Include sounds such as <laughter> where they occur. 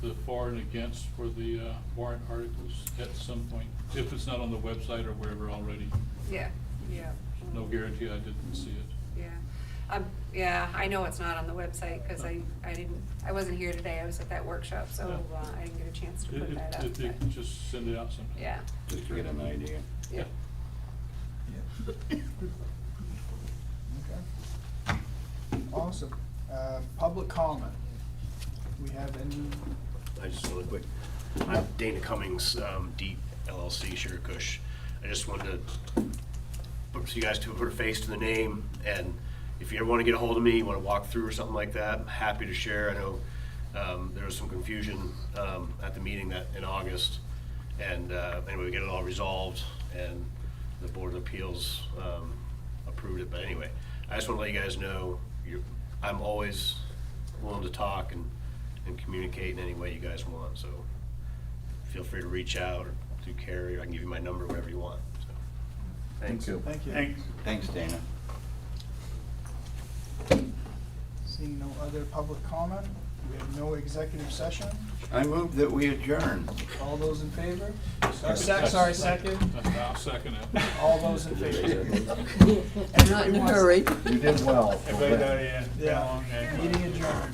for and against for the uh, warrant articles at some point, if it's not on the website or wherever already. Yeah, yeah. No guarantee I didn't see it. Yeah, um, yeah, I know it's not on the website, cause I, I didn't, I wasn't here today, I was at that workshop, so, Yeah. uh, I didn't get a chance to If- put if- that up. If you but- could just send it out sometime. Yeah, Just to get an idea. yeah. Yeah. <laughs> Okay. Awesome. Uh, public comment. We have any, I just really quick, I'm Dana Cummings, um, Deep LLC, Sugar Kush. I just wanted to, put- so you guys to put a face to the name, and if you ever want to get a hold of me, you want to walk through or something like that, I'm happy to share. I know um, there was some confusion um, at the meeting that, in August, and uh, anyway, we get it all resolved, and the Board of Appeals um, approved it, but anyway, I just want to let you guys know, you, I'm always willing to talk and, and communicate in any way you guys want, so feel free to reach out or through Carrie, or I can give you my number, whatever you want, so. Thanks. thank you. Thanks, Dana. Seeing no other public comment, we have no executive session. I move that we adjourn. All those in favor? Or sec, sorry, second. I'll second it. All those in <laughs> favor? Not in a <laughs> Everyone- hurry. You did well. Everybody, yeah, Yeah. Meeting adjourned.